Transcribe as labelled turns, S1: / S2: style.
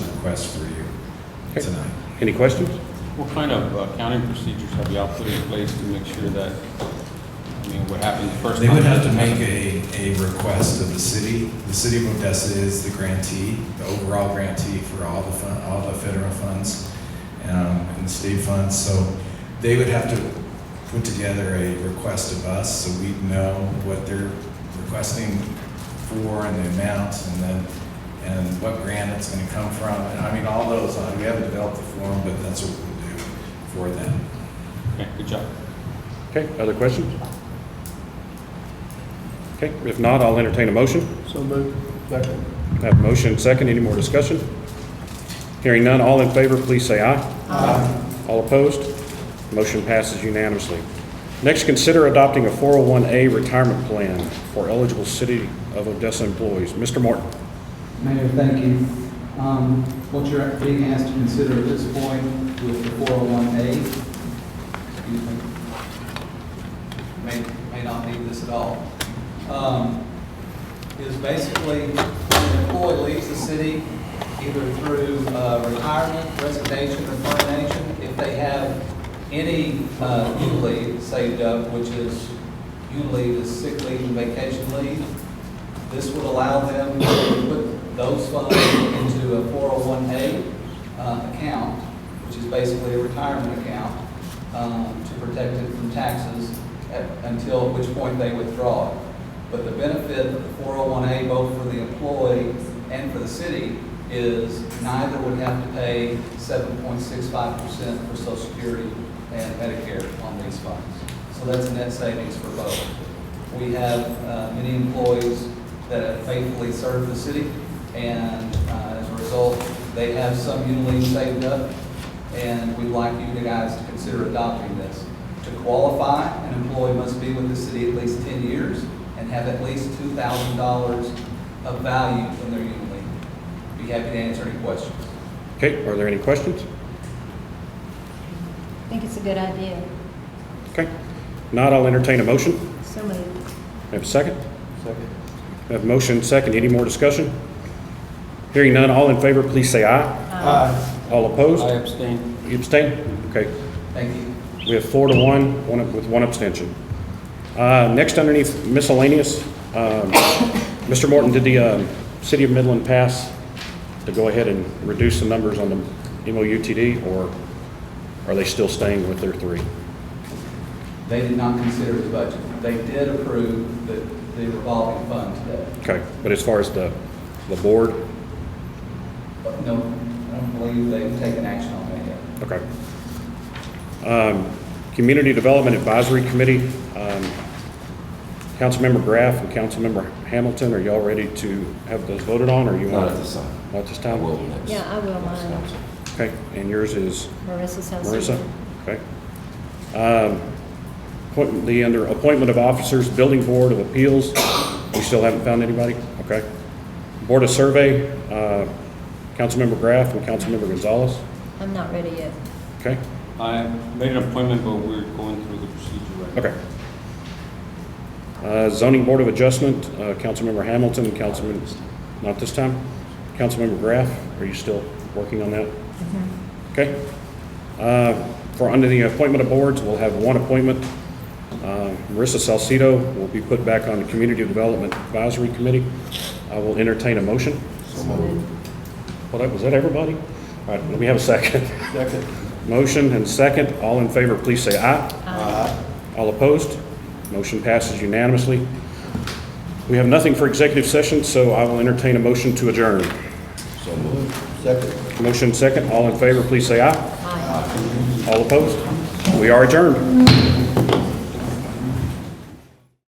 S1: request for you
S2: Okay.
S1: tonight.
S2: Any questions?
S3: What kind of uh, accounting procedures have y'all put in place to make sure that, I mean, what happened the first
S1: They
S3: time?
S1: would have to make a, a request of the city. The city of Odessa is the grantee, the overall grantee for all the fun, all the federal funds, um, and the state funds. So they would have to put together a request of us, so we'd know what they're requesting for and the amount, and then, and what grant it's gonna come from. And I mean, all those, uh, we haven't developed the form, but that's what we'll do for them.
S3: Okay, good job.
S2: Okay, other questions? Okay, if not, I'll entertain a motion.
S4: So moved. Second.
S2: I Have a motion, second, any more discussion? Hearing none, all in favor, please say aye. Aye. All opposed? Motion passes unanimously. Next, consider adopting a 401A retirement plan for eligible City of Odessa employees. Mr. Martin?
S5: Mayor, thank you. Um, What you're being asked to consider at this point with the 401A, excuse me, may, may not need this at all, um, is basically when an employee leaves the city, either through uh, retirement, resignation, or termination, if they have any uh, U leave saved up, which is, U leave is sick leave and vacation leave, this would allow them to put those funds into a 401A uh, account, which is basically a retirement account, um, to protect it from taxes at- until which point they withdraw it. But the benefit of the 401A, both for the employee and for the city, is neither would have to pay 7.65% for Social Security and Medicare on these funds. So that's a net savings for both. We have uh, many employees that have faithfully served the city, and uh, as a result, they have some unit saved up, and we'd like you guys to consider adopting this. To qualify, an employee must be with the city at least 10 years and have at least $2,000 of value from their unit leave. Be happy to answer any questions.
S2: Okay, are there any questions?
S6: I think it's a good idea.
S2: Okay. If Not, I'll entertain a motion.
S6: So moved.
S2: May I Have a second? Second. Have a motion, second, any more discussion? Hearing none, all in favor, please say aye.
S4: Aye.
S2: All opposed?
S3: I abstain.
S2: You abstain? Okay.
S5: Thank you.
S2: We have four to one, one, with one abstention. Uh, next underneath miscellaneous, um, Mr. Morton, did the, um, City of Midland pass to go ahead and reduce the numbers on the MOUTD, or are they still staying with their three?
S5: They did not consider the budget. They did approve the the revolving fund today.
S2: Okay, but as far as the, the board,
S5: No, I don't believe they've taken action on that yet.
S2: okay. Um, Community Development Advisory Committee, um, Councilmember Graff and Councilmember Hamilton, are y'all ready to have those voted on, or you want?
S7: Not at this time.
S2: Not this
S7: I
S2: time?
S7: will next.
S6: Yeah, I will,
S7: next
S6: mine.
S7: council.
S2: Okay, and yours is
S6: Marissa's house.
S2: Marissa? Okay. Um, appointment- The, under appointment of officers, Building Board of Appeals, we still haven't found anybody? Okay. Board of Survey, uh, Councilmember Graff and Councilmember Gonzalez,
S6: I'm not ready yet.
S2: okay?
S3: I made an appointment, but we're going through the procedure right now.
S2: Okay. Uh, Zoning Board of Adjustment, uh, Councilmember Hamilton, and Councilman, not this time? Councilmember Graff, are you still working on that? Okay. Uh, For under the appointment of boards, we'll have one appointment. Uh, Marissa Salcido will be put back on the Community Development Advisory Committee. I will entertain a motion. Well, that, was that everybody? All right, let me have a second.
S4: Second.
S2: Motion and second. All in favor, please say aye. All opposed? Motion passes unanimously. We have nothing for executive session, so I will entertain a motion to adjourn.
S7: So moved.
S4: Second.
S2: Motion second, all in favor, please say aye.
S6: Aye.
S2: All opposed? We are adjourned.